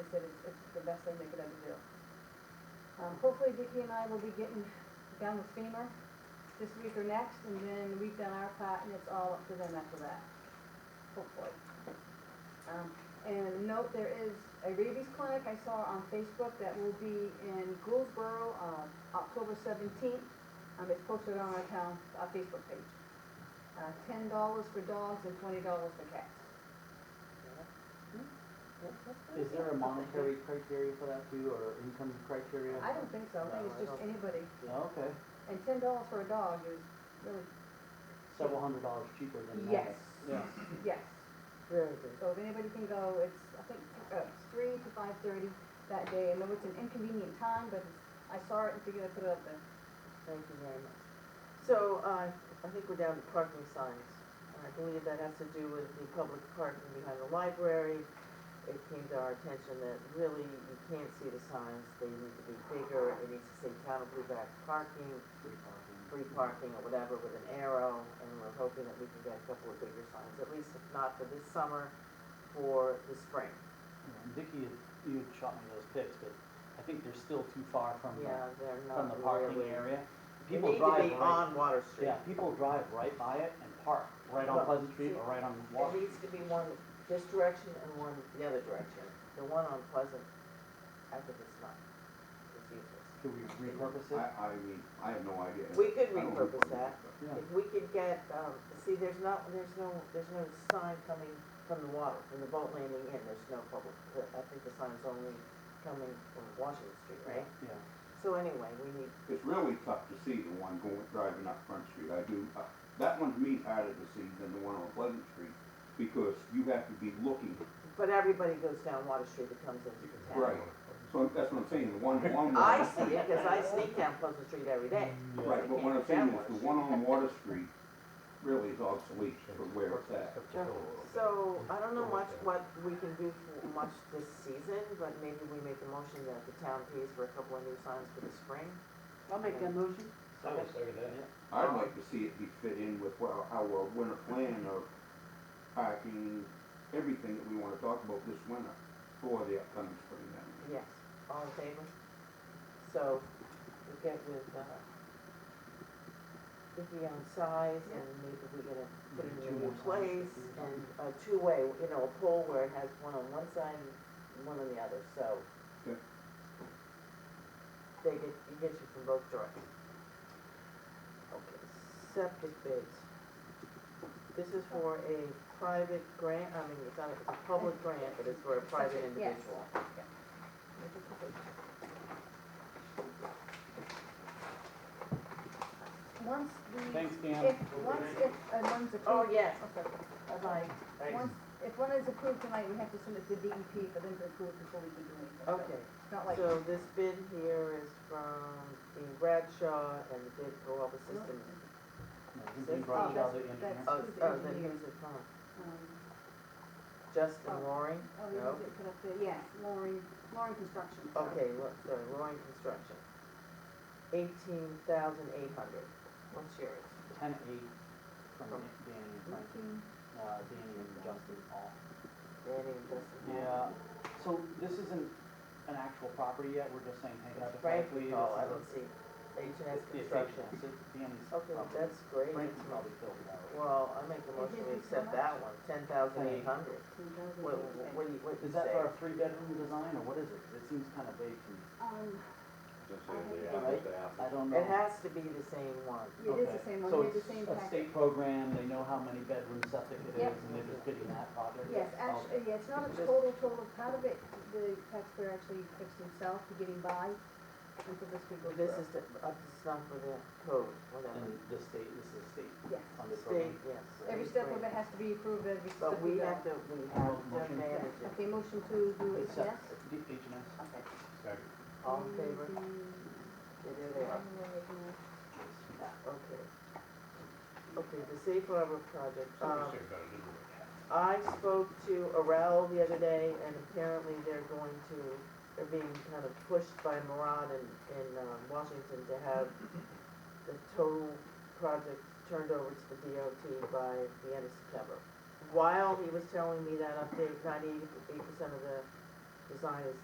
said it's, it's the best thing they could ever do. Um, hopefully Vicki and I will be getting down with FEMA this week or next, and then we've done our part, and it's all up to them after that, hopefully. Um, and note, there is a rabies clinic I saw on Facebook that will be in Goldsboro, uh, October seventeenth. Um, it's posted on our town, our Facebook page. Uh, ten dollars for dogs and twenty dollars for cats. Is there a monetary criteria for that too, or income criteria? I don't think so, I think it's No, I just don't- anybody, Oh, Okay, and ten dollars for a dog is really, several hundred dollars cheaper than that. yes, Yeah, yes. Very good. So if anybody can go, it's, I think, uh, it's three to five thirty that day. I know it's an inconvenient time, but it's- I saw it and figured I'd put it up there. Thank you very much. So, uh, I think we're down to parking signs. I believe that has to do with the public parking behind the library. It came to our attention that really you can't see the signs, they need to be bigger, it needs to say town of Blueback parking, free parking. free parking or whatever with an arrow, and we're hoping that we can get a couple of bigger signs, at least if not for this summer, for the spring. And Vicky, had- you had shot me those pics, but I think they're still too far from Yeah, the, they're from the not parking really. area. They People need to drive be right, on Water Street. yeah, people drive right by it and park right on Well, Pleasant Street see, or right on There Water. needs to be one this direction and one the other direction. The one on Pleasant, I think it's not, it's useless. Can we repurpose it? I, I mean, I have no idea. We could I don't repurpose that. Yeah. If we could get, um, see, there's not, there's no, there's no sign coming from the water, from the boat landing in, there's no public, uh, I think the sign's only coming from Washington Street, right? Yeah. So anyway, we need, It's really tough to see the one going, driving up Front Street. I do, uh, that one's me harder to see than the one on Pleasant Street because you have to be looking. but everybody goes down Water Street that comes into the town. Right. So that's what I'm saying, the one, one. I see it, cause I sneak down Pleasant Street every day. Right, but what I'm saying is the one on Water Street really is obsolete for where it's at. So, I don't know much what we can do for much this season, but maybe we make a motion that the town pays for a couple of new signs for the spring. I'll make that motion. I would second that. I'd like to see it be fit in with our, our winter plan of parking, everything that we wanna talk about this winter for the upcoming spring then. Yes, all in favor? So, we get with, uh, Vicky on size and maybe we get a, put it in a new Two more signs. place and a two-way, you know, a pole where it has one on one side and one on the other, so. Good. They get, you get you from both directions. Okay, septic bids. This is for a private grant, I mean, it's not, it's a public grant, but it's for a Septic, private yes. individual. Once the, Thanks, Dan. if, once, if, uh, one's approved. Oh, yes, Okay. bye-bye. Once, if one is approved tonight, we have to send it to DEP for them to approve before we can do anything. So Okay, It's not like, so this bid here is from the Bradshaw and the bid for all the systems. They brought it out the engineer. Oh, Who's the oh, then engineer? here's it from um, Justin Oh. Roaring? oh, you No? have it put up there, yeah, Loring, Loring Construction. sorry. Okay, look, so Roaring Construction. Eighteen thousand eight hundred. What's yours? Ten eight from Danny and Frank, Looking- uh, Danny and Justin Hall. Danny and Justin. Yeah, so this isn't an actual property yet, we're just saying, hey, It's Frank hypothetically, this is Oh, I a. don't see. H and S it's Construction. H&S, it's Danny's Okay, property. that's great. Um, Frank can probably filled it out. Well, I make a motion gives you so to accept much. that one, ten thousand eight hundred. What, what do you, what do you Is that say? for a three bedroom design, or what is it? It seems kind of vague to me, Um, Just I say think the apples it's- to apples. I don't know. It has to be the same one. it is the Okay, same one, so we have the it's same A package. state program, they know how many bedroom septic it is, Yep. and they're just bidding that project? Yes, Okay. actually, yeah, it's not a total, total, part of it, the taxpayer actually fixed himself to getting by, and for this we go This through. is the, up to snuff with the code, whatever. Oh, And the state, this is a state Yes, funded State, program. yes. every step of it has to be approved, every step But we we go. have to, we have to Motion. manage it. Okay, motion to do it, It's yes? sep- D- H and S. Okay. Second. All in favor? It is there. Okay. Okay, the Safe Harbor project. Um, Say about it anyway. I spoke to Arel the other day, and apparently they're going to, they're being kind of pushed by Murad in, in um, Washington to have the total project turned over to the DOT by the end of September. While he was telling me that update, ninety-eight percent of the design is